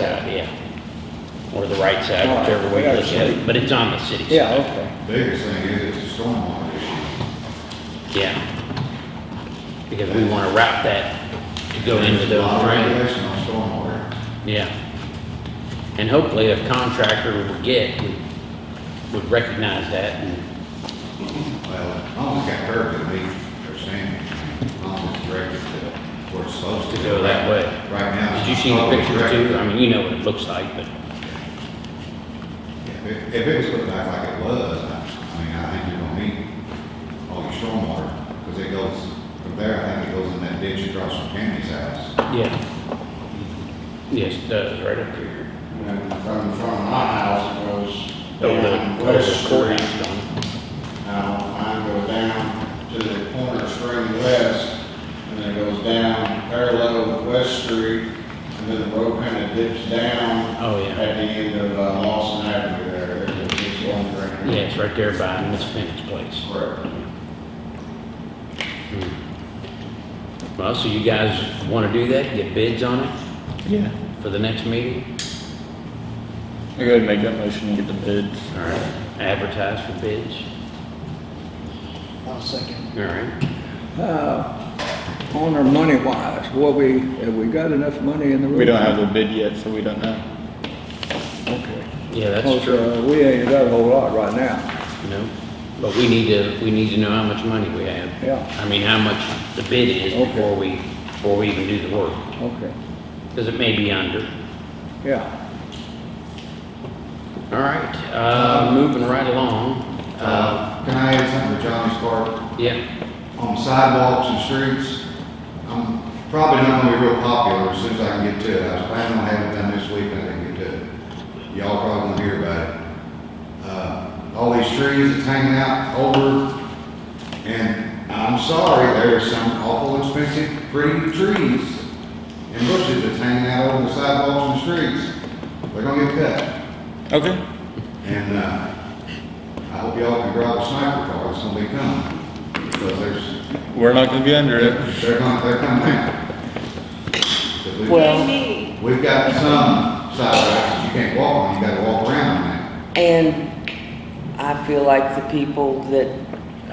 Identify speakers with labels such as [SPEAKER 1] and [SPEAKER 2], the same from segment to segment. [SPEAKER 1] idea. Or the right side,
[SPEAKER 2] All right,
[SPEAKER 1] whichever way
[SPEAKER 2] we
[SPEAKER 1] you
[SPEAKER 2] got
[SPEAKER 1] look
[SPEAKER 2] it.
[SPEAKER 1] at it, but it's on the city side.
[SPEAKER 2] Yeah, okay.
[SPEAKER 3] Biggest thing is it's a stormwater issue.
[SPEAKER 1] Yeah. Because we want to route that to go into
[SPEAKER 3] There's a
[SPEAKER 1] those
[SPEAKER 3] lot of
[SPEAKER 1] drains.
[SPEAKER 3] regulation on stormwater.
[SPEAKER 1] Yeah. And hopefully a contractor would get, would- would recognize that and,
[SPEAKER 3] Well, as long as it got curved, it'll be for sand. As long as it's directed to where it's supposed to.
[SPEAKER 1] To go that way.
[SPEAKER 3] Right now.
[SPEAKER 1] did
[SPEAKER 3] it's
[SPEAKER 1] you see the
[SPEAKER 3] totally
[SPEAKER 1] pictures
[SPEAKER 3] directed.
[SPEAKER 1] too? I mean, you know what it looks like, but,
[SPEAKER 3] If it- if it was put back like it was, I I mean, I think you're gonna meet all your stormwater, because it goes, from there, I think it goes in that ditch across from Tammy's house.
[SPEAKER 1] yeah. Yes, it does, right up here.
[SPEAKER 4] And from, from my house, it goes
[SPEAKER 1] Over the-
[SPEAKER 4] down
[SPEAKER 1] over the
[SPEAKER 4] West Street.
[SPEAKER 1] courthouse gone.
[SPEAKER 4] Now, mine goes down to the corner of Spring West, and then it goes down parallel with West Street, and then the road kind of dips down
[SPEAKER 1] Oh,
[SPEAKER 4] at the
[SPEAKER 1] yeah.
[SPEAKER 4] end of uh, Lawson Avenue there. There's a big one right
[SPEAKER 1] Yeah,
[SPEAKER 4] there.
[SPEAKER 1] it's right there by Miss Bennett's place.
[SPEAKER 4] Correct.
[SPEAKER 1] Well, so you guys want to do that, get bids on it
[SPEAKER 5] Yeah.
[SPEAKER 1] for the next meeting?
[SPEAKER 5] I go ahead and make that motion and get the bids.
[SPEAKER 1] All right, advertise for bids,
[SPEAKER 2] I'll second.
[SPEAKER 1] all right?
[SPEAKER 2] Uh, on our money wise, what we, have we got enough money in the room?
[SPEAKER 5] We don't have the bid yet, so we don't know.
[SPEAKER 2] Okay.
[SPEAKER 1] Yeah, that's
[SPEAKER 2] Cause,
[SPEAKER 1] true.
[SPEAKER 2] uh, we ain't got a whole lot right now.
[SPEAKER 1] No, but we need to, we need to know how much money we have.
[SPEAKER 2] Yeah.
[SPEAKER 1] I mean, how much the bid is
[SPEAKER 2] Okay.
[SPEAKER 1] before we, before we even do the work,
[SPEAKER 2] Okay,
[SPEAKER 1] because it may be under.
[SPEAKER 2] yeah.
[SPEAKER 1] All right, uh, moving right along, uh,
[SPEAKER 3] Uh, Can I add something to Johnny's part?
[SPEAKER 1] yeah,
[SPEAKER 3] on sidewalks and streets, I'm probably not gonna be real popular as soon as I can get to it. I was planning on having it done this week, and I didn't get to it. Y'all probably won't hear about it. Uh, all these trees that's hanging out over, and I'm sorry, there are some awful expensive pretty trees and bushes that's hanging out over the sidewalks and streets. They're gonna get cut.
[SPEAKER 5] Okay.
[SPEAKER 3] And, uh, I hope y'all can grab a sniper car, it's gonna be coming, because there's
[SPEAKER 5] We're not gonna be under it.
[SPEAKER 3] they're coming, they're coming out. But we've-
[SPEAKER 6] Well,
[SPEAKER 3] We've got some sidewalks that you can't walk on, you gotta walk around on
[SPEAKER 6] and I feel like the people that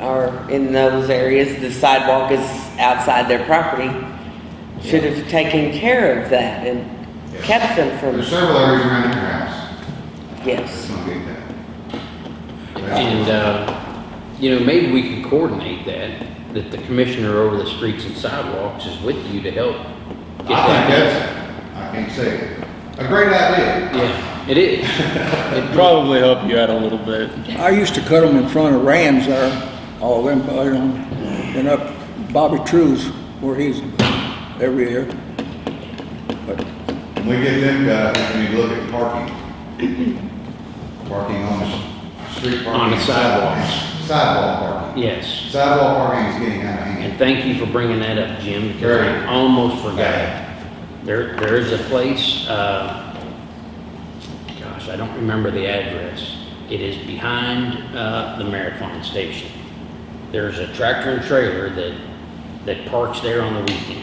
[SPEAKER 6] are in those areas, the sidewalk is outside their property, should have taken care of that and kept them
[SPEAKER 3] that.
[SPEAKER 6] from,
[SPEAKER 3] There's several areas around your house that's
[SPEAKER 6] yes.
[SPEAKER 3] gonna get that. That's-
[SPEAKER 1] and, uh, you know, maybe we could coordinate that, that the commissioner over the streets and sidewalks is with you to help. get
[SPEAKER 3] I think
[SPEAKER 1] that.
[SPEAKER 3] that's, I can't say, it. a great idea.
[SPEAKER 1] Yeah, it is.
[SPEAKER 5] It'd probably help you out a little bit.
[SPEAKER 2] I used to cut them in front of Rams there, all them, uh, you know, and up Bobby Trues where he's every year. But
[SPEAKER 3] When we get them guys, we need to look at parking. Parking on the s- street parking.
[SPEAKER 1] On the sidewalks.
[SPEAKER 3] Sidewalk parking.
[SPEAKER 1] Yes.
[SPEAKER 3] Sidewalk parking is getting out of hand.
[SPEAKER 1] And thank you for bringing that up, Jim, because I
[SPEAKER 3] Right.
[SPEAKER 1] almost forgot. There, there is a place, uh, gosh, I don't remember the address. It is behind, uh, the marathon station. There's a tractor and trailer that, that parks there on the weekends.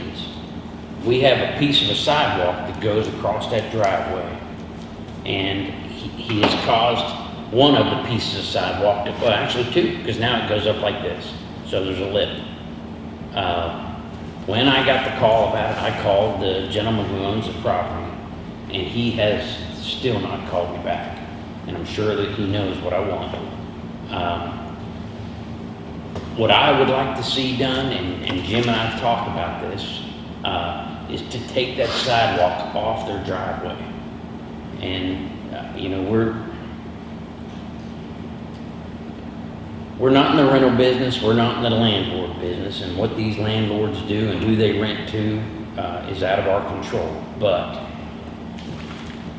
[SPEAKER 1] We have a piece of a sidewalk that goes across that driveway. And he, he has caused one of the pieces of sidewalk to, well, actually two, because now it goes up like this. So there's a lip. Uh, When I got the call about it, I called the gentleman who owns the property, and he has still not called me back. And I'm sure that he knows what I want. Um, What I would like to see done, and and Jim and I have talked about this, uh, is to take that sidewalk off their driveway. And, uh, you know, we're, We're not in the rental business, we're not in the landlord business, and what these landlords do and who they rent to uh, is out of our control. But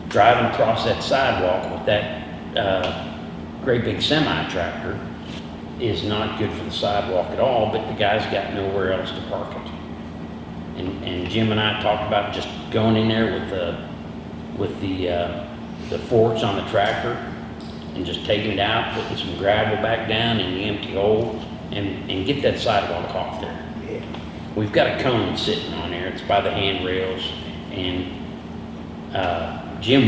[SPEAKER 1] driving across that sidewalk with that uh, great big semi tractor is not good for the sidewalk at all, but the guy's got nowhere else to park it. And, and Jim and I talked about just going in there with the, with the, uh, the forks on the tractor and just taking it out, putting some gravel back down in the empty hole and, and get that sidewalk off there. We've got a cone sitting on there, it's by the handrails and, uh, Jim